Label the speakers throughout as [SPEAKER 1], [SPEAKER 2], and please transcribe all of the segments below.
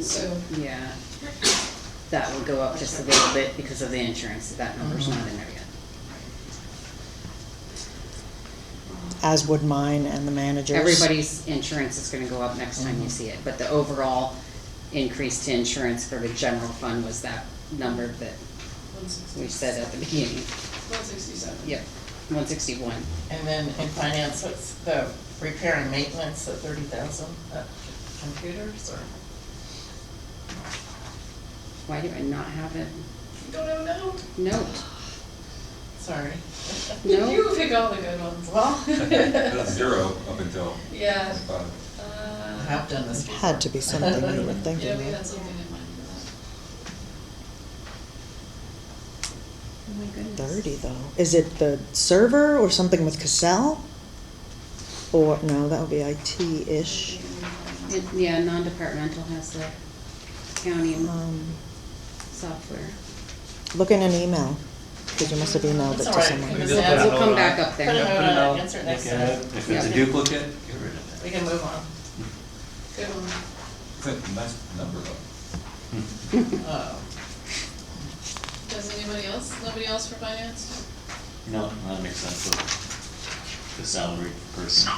[SPEAKER 1] So,
[SPEAKER 2] Yeah. That will go up just a little bit because of the insurance, that number's not in there yet.
[SPEAKER 3] as would mine and the manager's.
[SPEAKER 2] Everybody's insurance is gonna go up next time you see it, but the overall increase to insurance for the general fund was that number that
[SPEAKER 1] one sixty.
[SPEAKER 2] we said at the beginning.
[SPEAKER 1] One sixty-seven.
[SPEAKER 2] Yep, one sixty-one.
[SPEAKER 4] And then in finance, it's the repair and maintenance at thirty thousand, uh, computers or?
[SPEAKER 2] Why do I not have it?
[SPEAKER 1] Don't know,
[SPEAKER 2] Note,
[SPEAKER 4] Sorry.
[SPEAKER 1] no.
[SPEAKER 2] no,
[SPEAKER 1] You pick all the good ones.
[SPEAKER 4] Well,
[SPEAKER 5] That's zero up until uh,
[SPEAKER 1] Yeah,
[SPEAKER 5] five.
[SPEAKER 4] I
[SPEAKER 1] uh,
[SPEAKER 4] have done this
[SPEAKER 3] It
[SPEAKER 4] before.
[SPEAKER 3] had to be something you would think
[SPEAKER 1] yeah,
[SPEAKER 3] of.
[SPEAKER 1] we had something in mind for
[SPEAKER 2] oh my goodness.
[SPEAKER 3] Thirty though. Is it the server or something with Cassell? Or, no, that would be
[SPEAKER 1] that.
[SPEAKER 3] IT-ish.
[SPEAKER 2] It- Yeah, non-departmental has the county
[SPEAKER 3] Um,
[SPEAKER 2] software.
[SPEAKER 3] Look in an email, because you must have emailed it
[SPEAKER 4] It's
[SPEAKER 3] to
[SPEAKER 4] all right. We
[SPEAKER 3] someone.
[SPEAKER 4] can
[SPEAKER 6] Just
[SPEAKER 4] just
[SPEAKER 6] put
[SPEAKER 4] add-
[SPEAKER 6] it
[SPEAKER 2] We'll come
[SPEAKER 6] on.
[SPEAKER 2] back up
[SPEAKER 4] Put it
[SPEAKER 2] there.
[SPEAKER 6] Yeah.
[SPEAKER 4] on,
[SPEAKER 6] Put it
[SPEAKER 4] uh,
[SPEAKER 6] on.
[SPEAKER 4] insert
[SPEAKER 6] Look
[SPEAKER 4] next
[SPEAKER 6] at
[SPEAKER 4] time.
[SPEAKER 6] it. If it's a
[SPEAKER 2] Yeah.
[SPEAKER 6] duplicate, get rid of
[SPEAKER 4] We
[SPEAKER 6] it.
[SPEAKER 4] can move on.
[SPEAKER 1] Good one.
[SPEAKER 5] It's a nice number though.
[SPEAKER 6] Hmm.
[SPEAKER 4] Uh,
[SPEAKER 1] Does anybody else, nobody else for finance?
[SPEAKER 6] No, that makes sense for the salary person.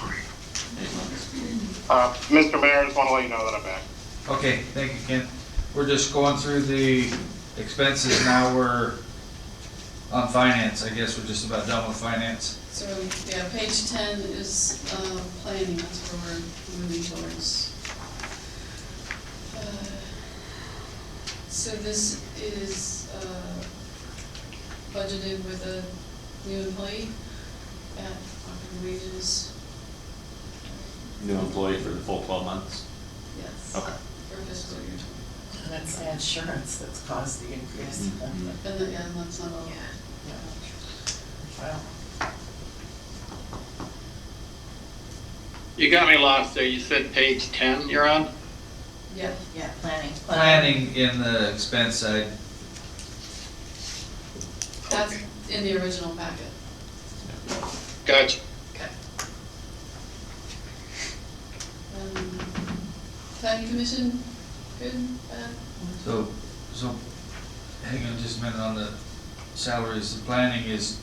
[SPEAKER 6] Eight months.
[SPEAKER 7] Uh, Mr. Mayor, I just want to let you know that I'm back.
[SPEAKER 8] Okay, thank you, Ken. We're just going through the expenses now, we're on finance, I guess we're just about done with finance.
[SPEAKER 1] So, yeah, page ten is, uh, planning, that's where we're moving towards. Uh, So this is, uh, budgeted with a new employee at Ogden wages,
[SPEAKER 6] New employee for the full twelve months.
[SPEAKER 1] yes.
[SPEAKER 6] Okay.
[SPEAKER 1] For fiscal year twenty.
[SPEAKER 4] And it's the insurance that's caused the increase.
[SPEAKER 6] Mhm.
[SPEAKER 1] And then, yeah, and that's not all.
[SPEAKER 4] Yeah. Well,
[SPEAKER 7] You got me lost there. You said page 10 you're on?
[SPEAKER 1] Yeah,
[SPEAKER 4] yeah, planning.
[SPEAKER 8] Planning in the expense side,
[SPEAKER 1] that's in the original packet.
[SPEAKER 7] Gotcha.
[SPEAKER 1] Okay. Um, Planning commission, good, bad?
[SPEAKER 8] so, so, hang on just a minute on the salaries, the planning is,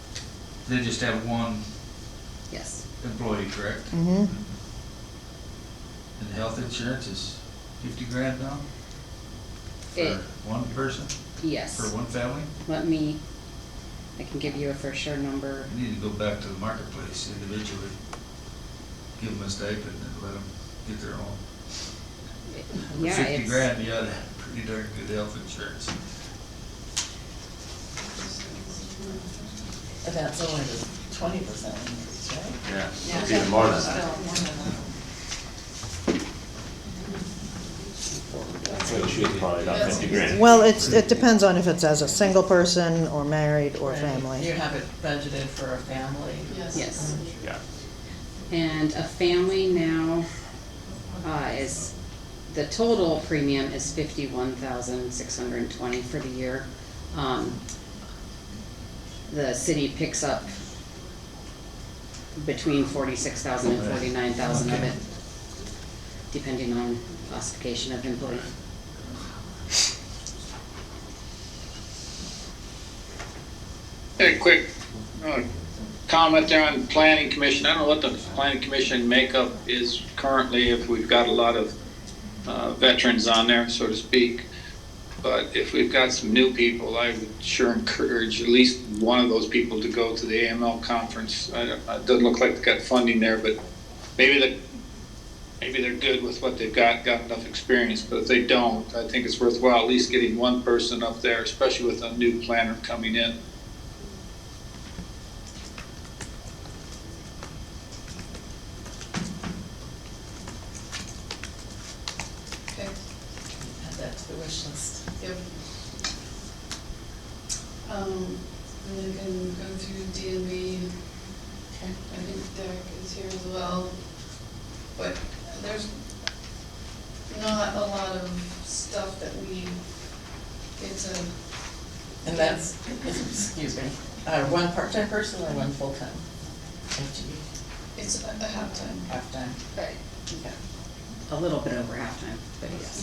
[SPEAKER 8] they just have one
[SPEAKER 2] Yes,
[SPEAKER 8] employee, correct?
[SPEAKER 3] Mm-hmm.
[SPEAKER 8] And health insurance is fifty grand now? For
[SPEAKER 2] It-
[SPEAKER 8] one person, for
[SPEAKER 2] yes.
[SPEAKER 8] one family?
[SPEAKER 2] Let me, I can give you a for sure number.
[SPEAKER 8] We need to go back to the marketplace individually, give them a stipend and let them get their own.
[SPEAKER 2] Yeah,
[SPEAKER 8] Fifty
[SPEAKER 2] it's-
[SPEAKER 8] grand, you ought to have pretty darn good health insurance.
[SPEAKER 4] But that's only the twenty percent increase, right?
[SPEAKER 6] Yeah, it's even more than that. So she was probably about fifty grand.
[SPEAKER 3] Well, it's, it depends on if it's as a single person, or married, or
[SPEAKER 4] Right. You
[SPEAKER 3] family.
[SPEAKER 4] have it budgeted for a family.
[SPEAKER 1] Yes.
[SPEAKER 2] Yes.
[SPEAKER 6] Yeah.
[SPEAKER 2] And a family now uh, is, the total premium is fifty-one thousand six hundred and twenty for the year. Um, The city picks up between forty-six thousand and forty-nine thousand of it, depending on classification of employee.
[SPEAKER 7] Hey, quick uh, comment there on planning commission. I don't know what the planning commission makeup is currently, if we've got a lot of uh, veterans on there, so to speak. But if we've got some new people, I would sure encourage at least one of those people to go to the AML conference. I don't- It doesn't look like they've got funding there, but maybe the, maybe they're good with what they've got, got enough experience. But if they don't, I think it's worthwhile at least getting one person up there, especially with a new planner coming in.
[SPEAKER 1] Okay,
[SPEAKER 4] Add that to the wish list.
[SPEAKER 1] yep. Um, and then can go through DMV,
[SPEAKER 4] Okay.
[SPEAKER 1] I think Derek is here as well. But there's not a lot of stuff that we, it's a,
[SPEAKER 4] And that's, excuse me, uh, one part-time person or one full-time? FTE,
[SPEAKER 1] it's a a half-time.
[SPEAKER 4] half-time?
[SPEAKER 1] Right.
[SPEAKER 4] Okay.
[SPEAKER 2] A little bit over halftime, but yes.